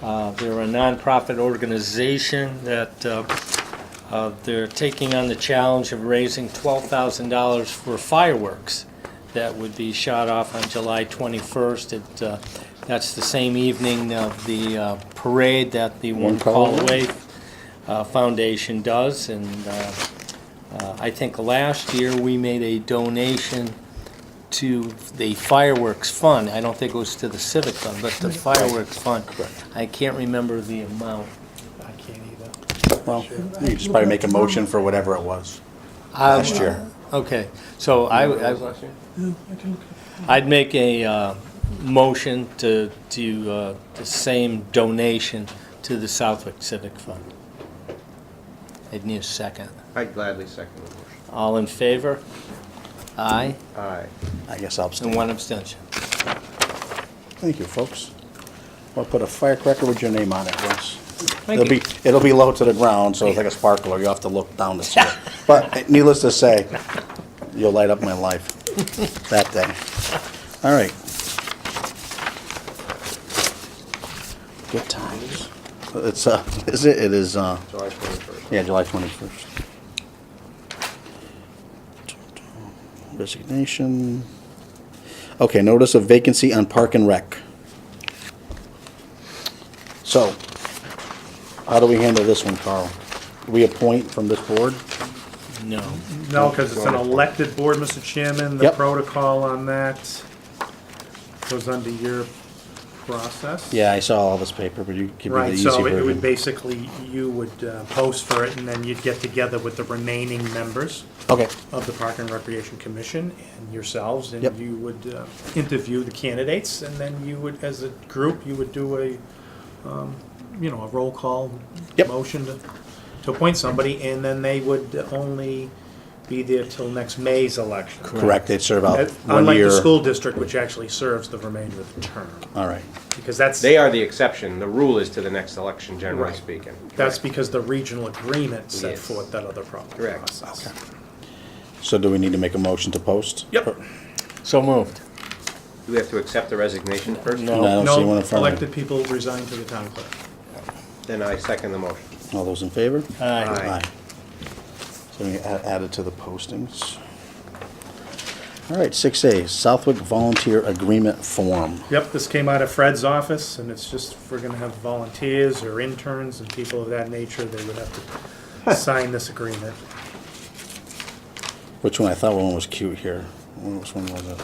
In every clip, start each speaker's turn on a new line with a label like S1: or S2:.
S1: Uh, They're a nonprofit organization that uh, uh, they're taking on the challenge of raising $12,000 for fireworks that would be shot off on July 21st. It, uh, That's the same evening of the uh, parade that the One Call Away uh, Foundation does. And uh, uh, I think last year, we made a donation to the fireworks fund. I don't think it was to the civic fund, but the fireworks fund.
S2: Correct.
S1: I can't remember the amount.
S3: I can't either.
S2: Well, you just probably make a motion for whatever it was last year.
S1: Um, Okay, so I, I- I'd make a uh, motion to, to uh, the same donation to the Southwick Civic Fund. I'd need a second.
S4: I gladly second the motion.
S1: All in favor? Aye,
S4: Aye.
S2: I guess I'll
S1: and
S2: abstain.
S1: one abstention.
S2: Thank you, folks. I'll put a firecracker with your name on it, Russ.
S1: Thank
S2: It'll
S1: you.
S2: be, it'll be low to the ground, so it's like a sparkler, you'll have to look down to see it. But needless to say, you'll light up my life that day. All right. Good times. It's, uh, is it, it is, uh,
S4: July 21st.
S2: yeah, July twenty-first. Resignation. Okay, notice of vacancy on Park and Rec. So, how do we handle this one, Carl? We appoint from this board?
S1: No.
S3: No, because it's an elected board, Mr. Chairman, the
S2: Yep.
S3: protocol on that goes under your process.
S2: Yeah, I saw all this paper, but you give me the
S3: Right,
S2: easy
S3: so it would
S2: version.
S3: basically, you would uh, post for it, and then you'd get together with the remaining members
S2: Okay,
S3: of the Park and Recreation Commission and yourselves,
S2: Yep.
S3: and you would uh, interview the candidates, and then you would, as a group, you would do a, um, you know, a roll call
S2: Yep.
S3: motion to, to appoint somebody, and then they would only be there till next May's election. Uh,
S2: correct, they'd serve out one
S3: Unlike
S2: year.
S3: the school district, which actually serves the remainder of the term,
S2: All right,
S3: because that's.
S4: They are the exception. The rule is to the next election, generally
S3: Right.
S4: speaking.
S3: That's because the regional agreement set
S4: Yes.
S3: forth that other problem.
S4: Correct.
S2: so do we need to make a motion to post?
S3: Yep.
S1: So moved.
S4: Do we have to accept the resignation first?
S2: No, I don't see one
S3: No
S2: in front of
S3: elected
S2: me.
S3: people resign to the town clerk.
S4: Then I second the motion.
S2: All those in favor?
S1: Aye.
S4: Aye.
S2: So we add- add it to the postings. All right, six A, Southwick Volunteer Agreement Form.
S3: Yep, this came out of Fred's office, and it's just, if we're gonna have volunteers or interns and people of that nature, they would have to sign this agreement.
S2: Which one, I thought one was cute here. Which one was it?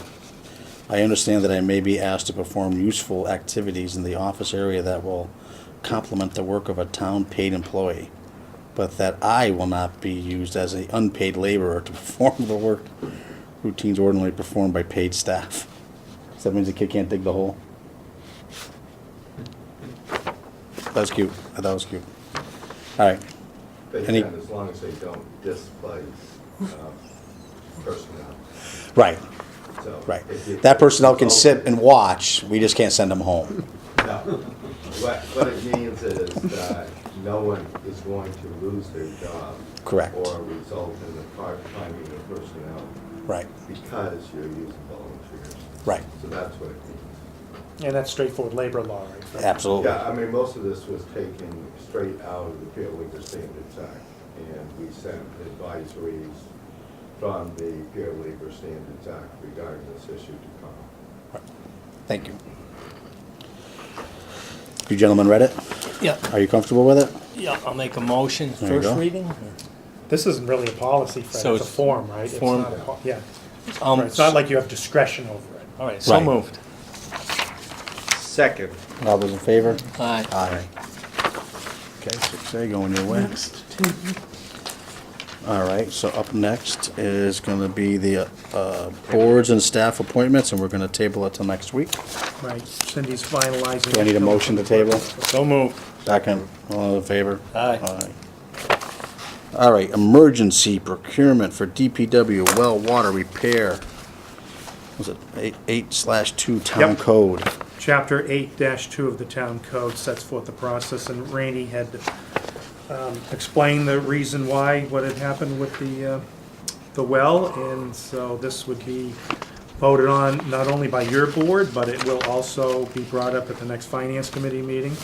S2: I understand that I may be asked to perform useful activities in the office area that will complement the work of a town paid employee, but that I will not be used as an unpaid laborer to perform the work routines ordinarily performed by paid staff. So that means the kid can't dig the hole? That was cute. I thought it was cute. All right.
S5: They
S2: Any-
S5: can, as long as they don't displace um, personnel,
S2: Right.
S5: so.
S2: Right.
S5: if you- Oh,
S2: That personnel can sit and watch, we just can't send them home.
S5: No. What, what it means is that no one is going to lose their job.
S2: Correct.
S5: Or result in the part timing of personnel
S2: Right,
S5: because you're using volunteers.
S2: right,
S5: So that's what it means.
S3: And that's straightforward labor law, right? Fred?
S2: absolutely.
S5: Yeah, I mean, most of this was taken straight out of the Fair Labor Standards Act, and we sent advisories from the Fair Labor Standards Act regarding this issue to come.
S2: Thank you. You gentlemen read it?
S1: Yeah,
S2: Are you comfortable with it?
S1: yeah, I'll make a motion.
S2: There you
S1: First
S2: go.
S1: reading?
S3: This isn't really a policy,
S1: So
S3: Fred, it's a
S1: it's
S3: form, right? It's
S1: form.
S3: not a po- Yeah,
S1: Um,
S3: Right, it's not like you have discretion over it.
S1: All right, so
S2: Right.
S1: moved.
S4: Second.
S2: All those in favor?
S1: Aye.
S2: Aye. Okay, six A going your way. All right, so up next is gonna be the, uh, boards and staff appointments, and we're gonna table it till next week.
S3: Right, Cindy's finalizing.
S2: Do I need a motion to table?
S1: So moved.
S2: Second, all in favor?
S1: Aye.
S2: Aye. All right, emergency procurement for DPW well water repair. Was it eight- eight slash two town
S3: Yep.
S2: code?
S3: Chapter eight two of the town code sets forth the process, and Rainey had um, explained the reason why, what had happened with the, uh, the well, and so this would be voted on not only by your board, but it will also be brought up at the next finance committee meeting.